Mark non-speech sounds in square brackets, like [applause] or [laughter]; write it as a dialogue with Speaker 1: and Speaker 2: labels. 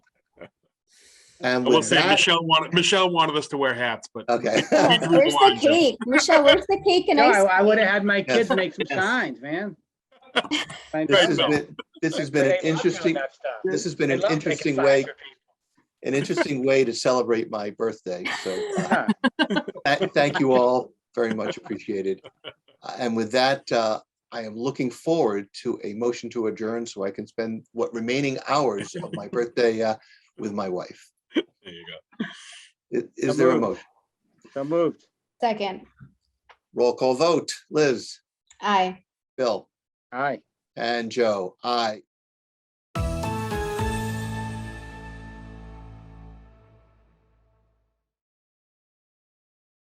Speaker 1: And
Speaker 2: I will
Speaker 1: with
Speaker 2: say
Speaker 1: that, Uh,
Speaker 2: Michelle wanted, Michelle wanted us to wear hats, but [laughs]
Speaker 1: okay. [laughs]
Speaker 2: we drew
Speaker 3: Where's the
Speaker 2: blinds up.
Speaker 3: cake? Michelle, where's the cake and
Speaker 4: No,
Speaker 3: ice?
Speaker 4: I would have had my kids
Speaker 1: Yes.
Speaker 4: make some
Speaker 1: Yes. [laughs]
Speaker 4: signs, man. Find
Speaker 1: This
Speaker 2: Right,
Speaker 1: has
Speaker 2: Bill.
Speaker 1: been, this has been
Speaker 4: They
Speaker 1: an
Speaker 4: love doing
Speaker 1: interesting,
Speaker 4: that stuff.
Speaker 1: this has been
Speaker 4: They
Speaker 1: an
Speaker 4: love making
Speaker 1: interesting
Speaker 4: signs
Speaker 1: way,
Speaker 4: for people.
Speaker 1: an interesting way to celebrate my birthday. So
Speaker 4: [laughs]
Speaker 1: uh,
Speaker 4: Yeah.
Speaker 1: tha- thank you all very much appreciated. Uh, And with that, uh, I am looking forward to a motion to adjourn so I can spend what remaining hours of my birthday uh, with my wife.
Speaker 2: There you go.
Speaker 1: I- Is there a
Speaker 4: Approved.
Speaker 1: motion?
Speaker 4: So moved.
Speaker 3: Second,
Speaker 1: Roll call vote. Liz,
Speaker 3: aye.
Speaker 1: Bill,
Speaker 4: All right.
Speaker 1: and Joe. Aye.